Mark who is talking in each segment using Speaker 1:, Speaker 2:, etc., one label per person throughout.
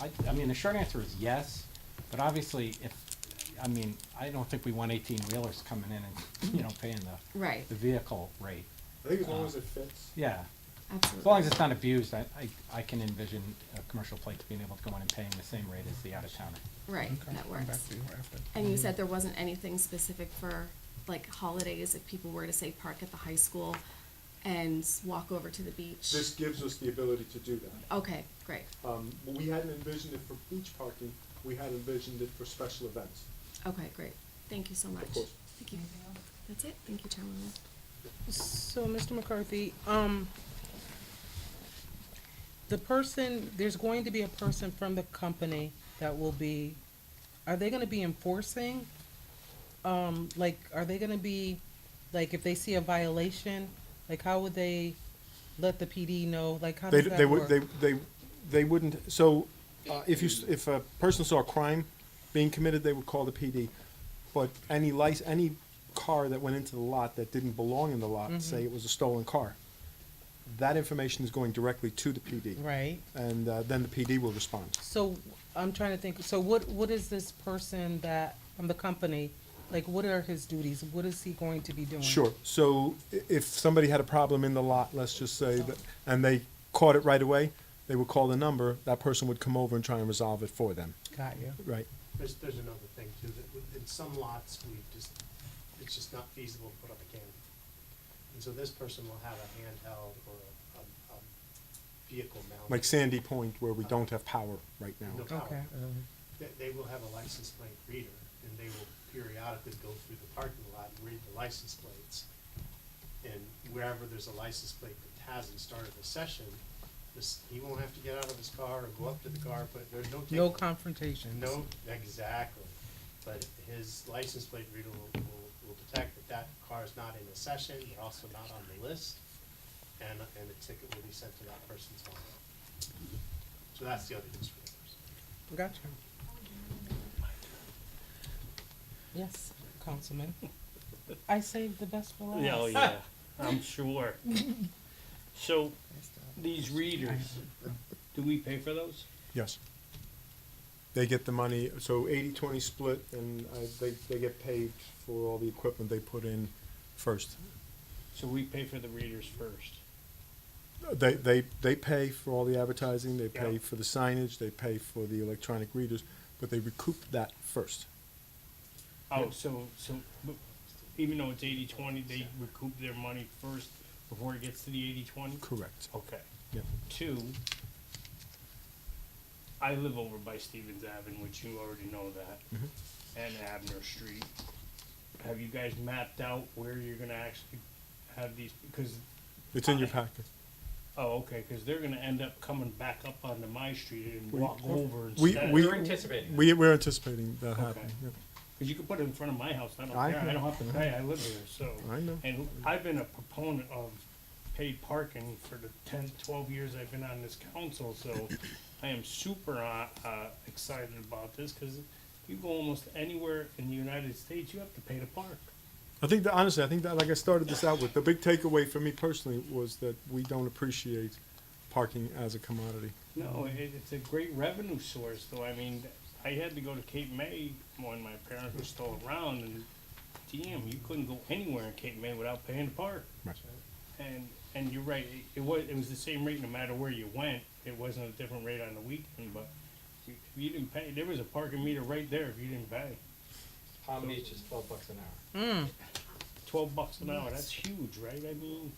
Speaker 1: I, I mean, the short answer is yes, but obviously if, I mean, I don't think we want eighteen wheelers coming in and, you know, paying the,
Speaker 2: Right,
Speaker 1: the vehicle rate.
Speaker 3: I think as long as it fits.
Speaker 1: Yeah,
Speaker 2: absolutely.
Speaker 1: as long as it's not abused, I, I, I can envision a commercial plates being able to go in and paying the same rate as the out of towner.
Speaker 2: Right,
Speaker 4: Okay,
Speaker 2: that
Speaker 4: come
Speaker 2: works.
Speaker 4: back to you after.
Speaker 2: And you said there wasn't anything specific for like holidays, if people were to say park at the high school and walk over to the beach?
Speaker 3: This gives us the ability to do that.
Speaker 2: Okay, great,
Speaker 3: Um, we hadn't envisioned it for beach parking, we had envisioned it for special events.
Speaker 2: okay, great, thank you so much.
Speaker 3: course.
Speaker 2: Thank you. That's it, thank you, Chairwoman.
Speaker 5: So, Mr. McCarthy, um, the person, there's going to be a person from the company that will be, are they gonna be enforcing? Um, like, are they gonna be, like, if they see a violation, like, how would they let the PD know? Like, how
Speaker 4: They,
Speaker 5: does
Speaker 4: they
Speaker 5: that
Speaker 4: would,
Speaker 5: work?
Speaker 4: they, they, they wouldn't, so, uh, if you, s- if a person saw a crime being committed, they would call the PD. But any lic, any car that went into the lot that didn't belong in the lot, say it was a stolen car, that information is going directly to the PD.
Speaker 5: Right,
Speaker 4: And, uh, then the PD will respond.
Speaker 5: so, I'm trying to think, so what, what is this person that, from the company, like, what are his duties? What is he going to be doing?
Speaker 4: Sure, so i- if somebody had a problem in the lot, let's just say, that- and they caught it right away, they would call the number, that person would come over and try and resolve it for them,
Speaker 5: Got you.
Speaker 4: right?
Speaker 6: There's, there's another thing too, that with- in some lots, we've just, it's just not feasible to put up a camera. And so this person will have a handheld or a, a, a vehicle mounted.
Speaker 4: like Sandy Point where we don't have power right now.
Speaker 6: No
Speaker 5: Okay.
Speaker 6: power. They, they will have a license plate reader and they will periodically go through the parking lot and read the license plates. And wherever there's a license plate that hasn't started the session, this, he won't have to get out of his car or go up to the car, but there's no.
Speaker 5: No
Speaker 6: ticket.
Speaker 5: confrontations.
Speaker 6: No, exactly. But his license plate reader will, will, will detect that that car is not in a session, they're also not on the list, and, and a ticket will be sent to that person's home. So that's the other disclaimer.
Speaker 5: Gotcha. Yes, Councilman. I saved the best for last.
Speaker 7: Yeah, oh yeah, I'm sure. So, these readers, do we pay for those?
Speaker 4: Yes. They get the money, so 80-20 split, and uh, they, they get paid for all the equipment they put in first.
Speaker 7: So we pay for the readers first.
Speaker 4: They, they, they pay for all the advertising, they pay
Speaker 7: Yeah.
Speaker 4: for the signage, they pay for the electronic readers, but they recoup that first.
Speaker 7: Oh, so, so, but even though it's eighty twenty, they recoup their money first before it gets to the eighty twenty?
Speaker 4: Correct.
Speaker 7: Okay.
Speaker 4: Yep.
Speaker 7: Two, I live over by Stevens Avenue, which you already know that, and Abner Street. Have you guys mapped out where you're gonna actually have these, because
Speaker 4: It's in your packet.
Speaker 7: Oh, okay, because they're gonna end up coming back up onto my street and walk over
Speaker 4: We-
Speaker 7: instead.
Speaker 4: we-
Speaker 1: We're anticipating that.
Speaker 4: We, we're anticipating that
Speaker 7: Okay.
Speaker 4: happening. yeah.
Speaker 7: Because you can put it in front of my house, I don't
Speaker 4: I
Speaker 7: care, I don't have to
Speaker 4: know.
Speaker 7: pay, I live here, so.
Speaker 4: I know.
Speaker 7: And I've been a proponent of paid parking for the ten, twelve years I've been on this council, so I am super, uh, uh, excited about this, because you go almost anywhere in the United States, you have to pay to park.
Speaker 4: I think that honestly, I think that like I started this out with the big takeaway for me personally was that we don't appreciate parking as a commodity.
Speaker 7: No, it, it's a great revenue source, though, I mean, I had to go to Cape May when my parents were still around, and damn, you couldn't go anywhere in Cape May without paying to park.
Speaker 4: Right.
Speaker 7: And, and you're right, it, it was, it was the same rate no matter where you went, it wasn't a different rate on the weekend, but you, if you didn't pay, there was a parking meter right there if you didn't pay.
Speaker 1: Palm Beach is twelve bucks an hour.
Speaker 7: Twelve bucks an hour, that's huge, right, I mean,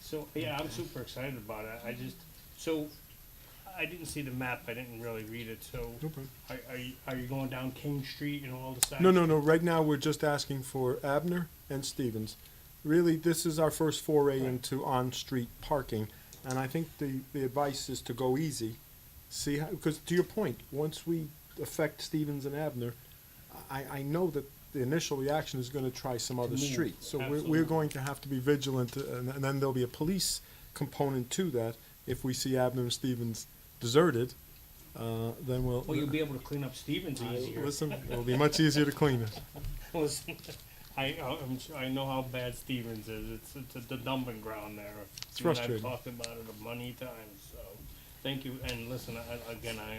Speaker 7: so, yeah, I'm super excited about it, I just, so, I didn't see the map, I didn't really read it, so. Are, are you, are you going down King Street and all the sides?
Speaker 4: No, no, no. Right now, we're just asking for Abner and Stevens. Really, this is our first foray into on-street parking, and I think the, the advice is to go easy. See, how because to your point, once we affect Stevens and Abner, I, I know that the initial reaction is gonna try some other
Speaker 7: move,
Speaker 4: street. So we're, we're
Speaker 7: absolutely.
Speaker 4: going to have to be vigilant, uh, and, and then there'll be a police component to that. If we see Abner and Stevens deserted, uh, then we'll.
Speaker 7: Well, you'll be able to clean up Stevens easier.
Speaker 4: Listen, it'll be much easier to clean it.
Speaker 7: Listen, I, uh, I'm, sure- I know how bad Stevens is. It's, it's a- the dumping ground there.
Speaker 4: It's
Speaker 7: You and
Speaker 4: frustrating.
Speaker 7: I've talked about it a money times, so, thank you, and listen, I, again, I